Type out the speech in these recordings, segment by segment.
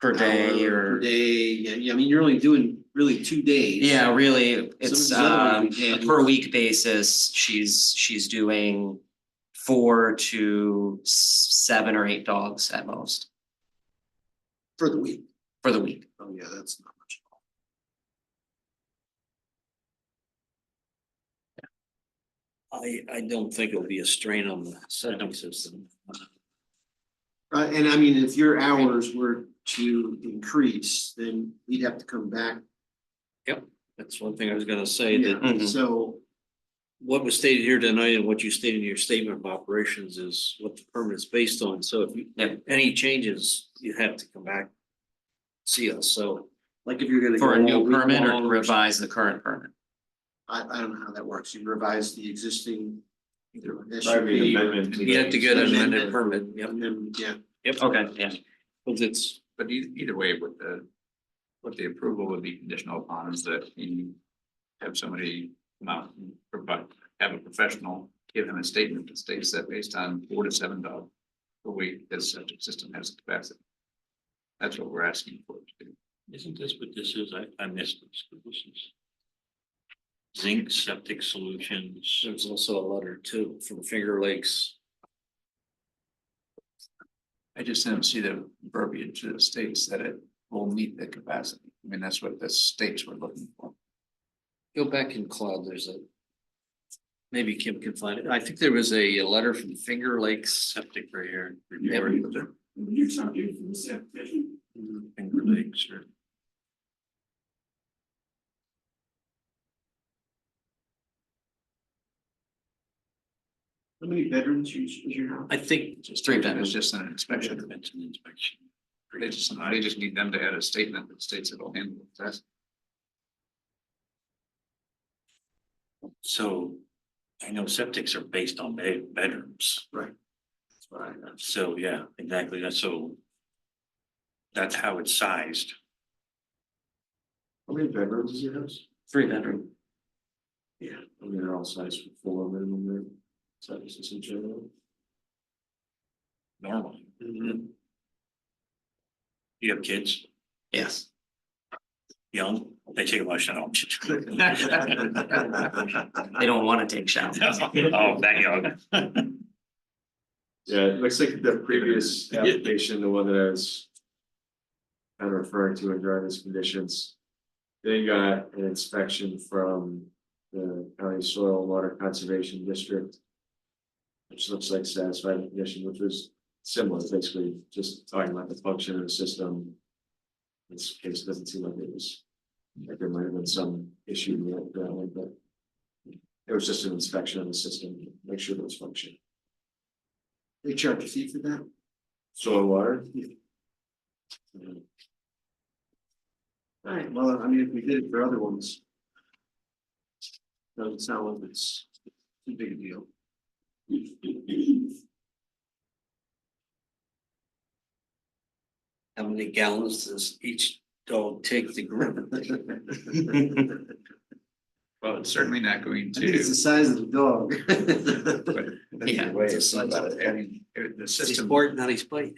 per day hour per or, Day, yeah, yeah, I mean, you're only doing really two days. yeah, really, it's Some of the other um ones, yeah. a per week basis, she's she's doing four to s- seven or eight dogs at most For the week. for the week. Oh, yeah, that's not much. at all. I, I don't think it'll be a strain on the septic system. Uh, and I mean, if your hours were to increase, then we'd have to come back. That's one thing I was gonna say, that Yeah, Mhm. so, what was stated here tonight and what you stated in your statement of operations is what the permit is based on, so if you, Yep. any changes, you have to come back. See us, so. like if you're gonna. For a go new all week permit or to long revise the current permit. I, I don't know how that works. You revise the existing. either an SUV or- amendment. You have to get an amended Amendment. permit, yep, And then, yeah, yep. Okay, yeah. Cause it's, But either, either way, with the, what the approval would be conditional upon is that you have somebody come out and provide, have a professional give him a statement that states that based on four to seven dog per week, this septic system has the capacity. That's what we're asking for. to do. Isn't this what this is? I, I missed this. What This is zinc septic solutions. there's also a letter too from Finger Lakes. I just didn't see the verbiage that states that it will meet the capacity. I mean, that's what the states were looking for. Go back in cloud, there's a. Maybe Kim can find it. I think there was a a letter from Finger Lakes Septic right here. You're talking from septic. Finger Lakes or. how many bedrooms you, is your house? I think Just Three three, bedrooms. it's just an inspection. It's an inspection. They just, they just need them to add a statement that states it'll handle the test. So I know septics are based on ba- bedrooms. That's what I know. So, yeah, exactly. That's so. That's how it's sized. How many bedrooms is your house? Three bedroom. Yeah. I mean, they're all sized for four minimum room, sizes in general. normally. Mm-hmm. Do You have kids, Yes. young, they take a lot of Oh, showers. They don't want to take showers. Oh, that young. Yeah, it looks like the previous application, the one that I was. Kind of referring to in driver's conditions. They got an inspection from the county soil and water conservation district. Which looks like satisfied the condition, which was similar, basically just talking about the function of the system. In This case it doesn't seem like it was, like there might have been some issue with that one, but. It was just an inspection of the system, make sure it was functioning. They charge a fee for that? Soil and water? Alright, well, I mean, if we did it for other ones. Doesn't sound like it's too big a deal. how many gallons does each dog take to grow? Well, it's certainly not going I think it's the to. size of the dog. but that's Yeah, the way it's it's the size about of it. adding- it- The It's system, important, not his plate.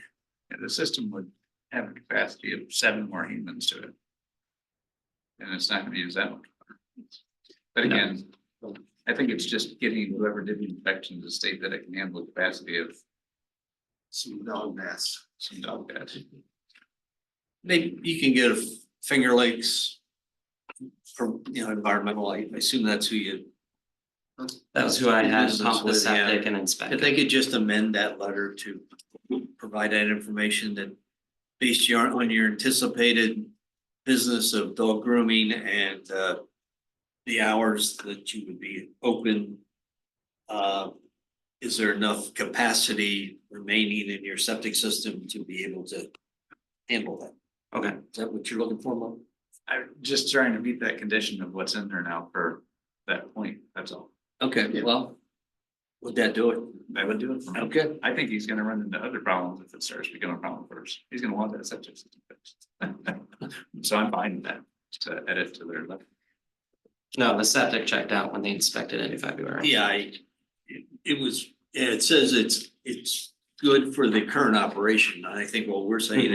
the system would have a capacity of seven more humans to it. And it's not gonna use that one. But No. again, I think it's just getting whoever did the inspection to state that it can handle the capacity of Some dog mess. some dog beds. Maybe you can get a Finger Lakes. From, you know, environmental, I I assume that's who you, That was who I had Business pump the with, yeah. septic and if inspect. they could just amend that letter to provide that information that. Based your, on your anticipated business of dog grooming and uh. The hours that you would be open. Uh, is there enough capacity remaining in your septic system to be able to handle that? Okay. Is that what you're looking for, Mo? I'm just trying to meet that condition of what's in there now for that point, that's all. Okay, Yeah. well. Would that do it? That would do it for me. Okay. I think he's gonna run into other problems if it starts becoming a problem first. He's gonna want that septic system fixed. So I'm fine with that, to edit to their left. No, the septic checked out when they inspected it in February. Yeah, I, it, it was, yeah, it says it's, it's good for the current operation, and I think what we're saying